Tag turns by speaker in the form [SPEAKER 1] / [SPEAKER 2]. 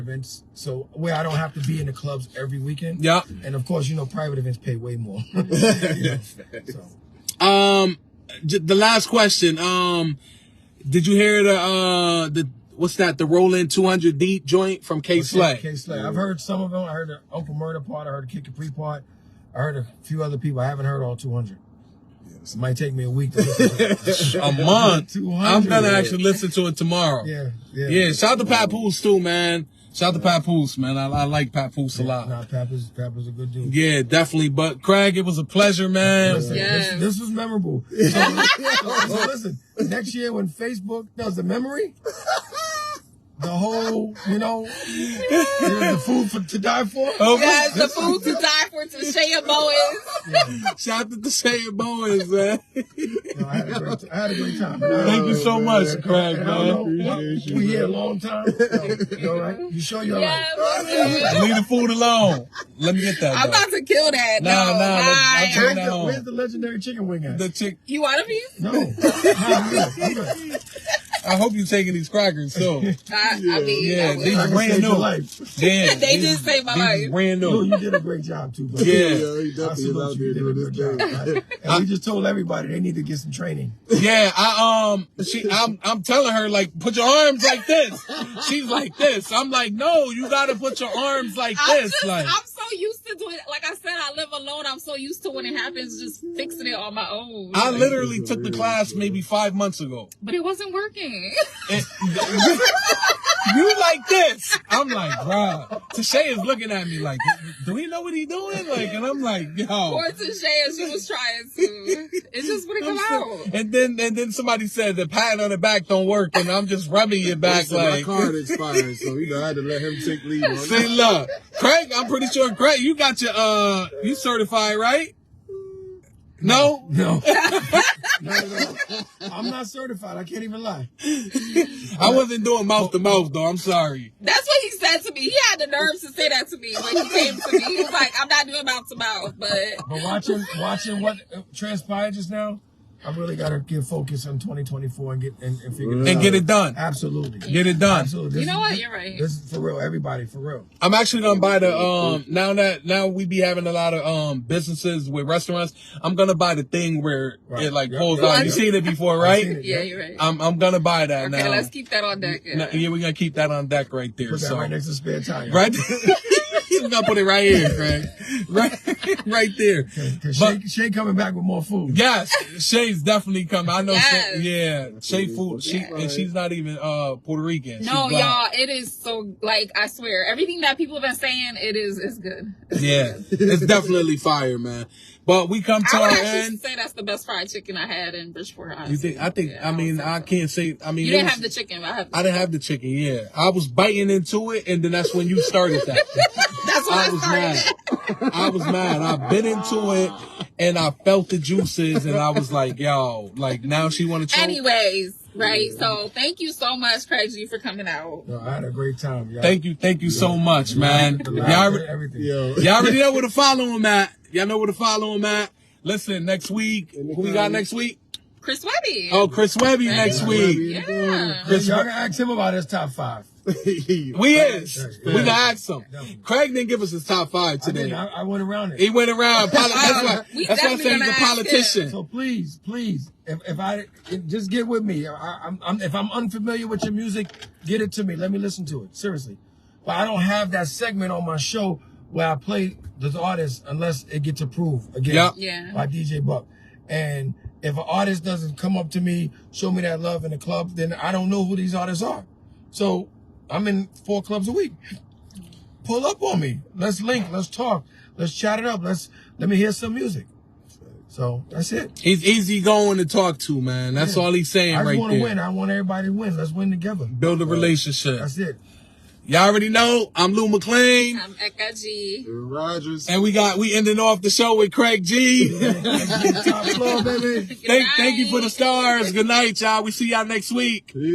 [SPEAKER 1] events, so where I don't have to be in the clubs every weekend.
[SPEAKER 2] Yep.
[SPEAKER 1] And of course, you know, private events pay way more. You know, so
[SPEAKER 2] Um, j- the last question. Um, did you hear the uh the what's that? The Roland 200 deep joint from K Slay.
[SPEAKER 1] K Slay. I've heard some of them. I heard the Uncle Murder part. I heard the Kick Capri part. I heard a few other people. I haven't heard all 200. It might take me a week to listen to it.
[SPEAKER 2] A month.
[SPEAKER 1] 200.
[SPEAKER 2] I'm gonna actually listen to it tomorrow.
[SPEAKER 1] Yeah, yeah.
[SPEAKER 2] Yeah, shout out to Papoose too, man. Shout out to Papoose, man. I, I like Papoose a lot.
[SPEAKER 1] Nah, Papa's, Papa's a good dude.
[SPEAKER 2] Yeah, definitely. But Craig, it was a pleasure, man.
[SPEAKER 1] Listen,
[SPEAKER 3] Yes.
[SPEAKER 1] this, this was memorable. So, so listen, next year when Facebook does the memory, the whole, you know, the food for, to die for.
[SPEAKER 2] Oh,
[SPEAKER 3] Guys, the food to die for to Shea Bowen.
[SPEAKER 2] Shout out to the Shane Boys, man.
[SPEAKER 1] No, I, had a great, I had a great time.
[SPEAKER 2] Thank you
[SPEAKER 1] Oh,
[SPEAKER 2] so much, Craig,
[SPEAKER 1] I don't know.
[SPEAKER 2] man.
[SPEAKER 1] We here a long time. No, you all right? You sure you're all
[SPEAKER 3] Yeah,
[SPEAKER 1] right?
[SPEAKER 3] we'll do it.
[SPEAKER 2] Leave the food alone. Let me get that.
[SPEAKER 3] I'm
[SPEAKER 2] though.
[SPEAKER 3] about to kill that.
[SPEAKER 2] Nah,
[SPEAKER 3] no,
[SPEAKER 2] nah,
[SPEAKER 3] bye.
[SPEAKER 2] I'm
[SPEAKER 1] Where's
[SPEAKER 2] taking that
[SPEAKER 1] the,
[SPEAKER 2] home.
[SPEAKER 1] where's the legendary chicken wing at?
[SPEAKER 2] the chick.
[SPEAKER 3] You want a piece?
[SPEAKER 1] no. I'm good. I'm good.
[SPEAKER 2] I hope you're taking these crackers too.
[SPEAKER 3] I, I mean,
[SPEAKER 2] Yeah,
[SPEAKER 3] I will.
[SPEAKER 2] these-
[SPEAKER 1] I can
[SPEAKER 2] Brand
[SPEAKER 1] save your
[SPEAKER 2] new.
[SPEAKER 1] life.
[SPEAKER 2] Damn,
[SPEAKER 3] They
[SPEAKER 2] these-
[SPEAKER 3] just saved my
[SPEAKER 2] these
[SPEAKER 3] life.
[SPEAKER 2] Brand
[SPEAKER 1] Lou,
[SPEAKER 2] new.
[SPEAKER 1] you did a great job too. Bro.
[SPEAKER 2] Yeah.
[SPEAKER 4] he
[SPEAKER 1] I
[SPEAKER 4] definitely is
[SPEAKER 1] salute
[SPEAKER 4] out
[SPEAKER 1] you.
[SPEAKER 4] there
[SPEAKER 1] You did a
[SPEAKER 4] doing his
[SPEAKER 1] good job.
[SPEAKER 4] thing.
[SPEAKER 1] right? And we just told everybody they need to get some training.
[SPEAKER 2] Yeah, I um, she, I'm, I'm telling her like, put your arms like this. She's like this. I'm like, no, you gotta put your arms like
[SPEAKER 3] I'm,
[SPEAKER 2] this.
[SPEAKER 3] just,
[SPEAKER 2] Like,
[SPEAKER 3] I'm so used to doing it. Like I said, I live alone. I'm so used to when it happens, just fixing it on my own.
[SPEAKER 2] I literally took the class maybe five months ago.
[SPEAKER 3] but it wasn't working.
[SPEAKER 2] And you like this? I'm like, bruh. Tashay is looking at me like, do he know what he doing? Like, and I'm like, yo.
[SPEAKER 3] or to Shea, she was trying to. It just wouldn't come out.
[SPEAKER 2] And then and then somebody said the patting on the back don't work, and I'm just rubbing your back
[SPEAKER 4] Listen, my
[SPEAKER 2] like.
[SPEAKER 4] card expired, so you know I had to let him take lead on
[SPEAKER 2] See,
[SPEAKER 4] that.
[SPEAKER 2] look, Craig, I'm pretty sure Craig, you got your uh, you certified, right? No,
[SPEAKER 1] No. no, no. I'm not certified. I can't even lie.
[SPEAKER 2] I wasn't doing mouth to mouth though. I'm sorry.
[SPEAKER 3] That's what he said to me. He had the nerves to say that to me when he came to me. He was like, I'm not doing mouth to mouth, but
[SPEAKER 1] But watching watching what uh, transpired just now, I really got to get focused on 2024 and get and, and figure it out.
[SPEAKER 2] And get it done.
[SPEAKER 1] Absolutely.
[SPEAKER 2] Get it done.
[SPEAKER 1] Absolutely.
[SPEAKER 3] you know what?
[SPEAKER 1] This-
[SPEAKER 3] You're right.
[SPEAKER 1] This is for real. Everybody, for real.
[SPEAKER 2] I'm actually gonna buy the um now that now we be having a lot of um businesses with restaurants. I'm gonna buy the thing where it
[SPEAKER 1] Right.
[SPEAKER 2] like
[SPEAKER 1] Yep.
[SPEAKER 2] pulls out. You seen it before,
[SPEAKER 1] I've seen
[SPEAKER 2] right?
[SPEAKER 1] it.
[SPEAKER 3] Yeah, you're right.
[SPEAKER 2] I'm I'm gonna buy that
[SPEAKER 3] okay,
[SPEAKER 2] now.
[SPEAKER 3] let's keep that on deck. Yeah.
[SPEAKER 2] No, yeah, we're gonna keep that on deck right there.
[SPEAKER 1] Put that
[SPEAKER 2] so
[SPEAKER 1] right next to spare tire.
[SPEAKER 2] right We're gonna put it right here, Craig. Right right there.
[SPEAKER 1] Because
[SPEAKER 2] But-
[SPEAKER 1] Shay, Shay coming back with more food.
[SPEAKER 2] Yes, Shay's definitely coming. I know Shay,
[SPEAKER 3] Yes.
[SPEAKER 2] yeah. Shay food she and she's not even uh Puerto Rican. She's
[SPEAKER 3] No,
[SPEAKER 2] black.
[SPEAKER 3] y'all, it is so like I swear, everything that people have been saying, it is is good.
[SPEAKER 2] Yeah. It's definitely fire, man. But we come to
[SPEAKER 3] I
[SPEAKER 2] our
[SPEAKER 3] would actually
[SPEAKER 2] end.
[SPEAKER 3] say that's the best fried chicken I had in Bridgeport.
[SPEAKER 2] You think? I think.
[SPEAKER 3] Yeah,
[SPEAKER 2] I mean,
[SPEAKER 3] would say
[SPEAKER 2] I
[SPEAKER 3] so.
[SPEAKER 2] can't say. I mean,
[SPEAKER 3] You
[SPEAKER 2] it
[SPEAKER 3] didn't
[SPEAKER 2] was-
[SPEAKER 3] have the chicken. I have.
[SPEAKER 2] I didn't have the chicken. Yeah, I was biting into it, and then that's when you started that.
[SPEAKER 3] that's what I,
[SPEAKER 2] I was
[SPEAKER 3] started.
[SPEAKER 2] mad. I was mad. I bit into it, and I felt the juices, and I was like, "Yo, like now she want to choke."
[SPEAKER 3] Anyways, right? So thank you so much, Craig G, for coming out.
[SPEAKER 1] No, I had a great time. Y'all.
[SPEAKER 2] Thank you, thank you so much, man.
[SPEAKER 1] The
[SPEAKER 2] Y'all,
[SPEAKER 1] laughter, everything.
[SPEAKER 4] Yo.
[SPEAKER 2] y'all already know where to follow him at. Y'all know where to follow him at. Listen, next week, who we got next week?
[SPEAKER 3] Chris Webby.
[SPEAKER 2] Oh, Chris Webby next week.
[SPEAKER 3] yeah.
[SPEAKER 1] Chris, y'all can ask him about his top five.
[SPEAKER 2] We is. We
[SPEAKER 1] Yeah.
[SPEAKER 2] can ask him. Craig didn't give us his top five
[SPEAKER 1] I, didn't,
[SPEAKER 2] today.
[SPEAKER 1] I, I went around
[SPEAKER 2] He
[SPEAKER 1] it.
[SPEAKER 2] went around. Poli- that's why,
[SPEAKER 3] We
[SPEAKER 2] that's why I
[SPEAKER 3] definitely
[SPEAKER 2] said he's
[SPEAKER 3] gonna
[SPEAKER 2] a
[SPEAKER 3] ask him.
[SPEAKER 2] politician.
[SPEAKER 1] So please, please, if, if I if- just get with me, I, I'm, I'm, if I'm unfamiliar with your music, get it to me. Let me listen to it seriously. But I don't have that segment on my show where I play the artist unless it gets approved again
[SPEAKER 2] Yup.
[SPEAKER 3] Yeah.
[SPEAKER 1] by DJ Buck. And if an artist doesn't come up to me, show me that love in the club, then I don't know who these artists are. So I'm in four clubs a week. Pull up on me. Let's link. Let's talk. Let's chat it up. Let's let me hear some music. So that's it.
[SPEAKER 2] He's easy going to talk to, man. That's all he's saying
[SPEAKER 1] I just
[SPEAKER 2] right
[SPEAKER 1] want
[SPEAKER 2] there.
[SPEAKER 1] to win. I want everybody to win. Let's win together.
[SPEAKER 2] Build a relationship.
[SPEAKER 1] That's it.
[SPEAKER 2] Y'all already know. I'm Lou McLean,
[SPEAKER 3] I'm Eka G.
[SPEAKER 4] Rogers.
[SPEAKER 2] and we got we ending off the show with Craig G.
[SPEAKER 1] Top floor, baby.
[SPEAKER 2] thank, thank you for the stars. Good night, y'all. We see y'all next week.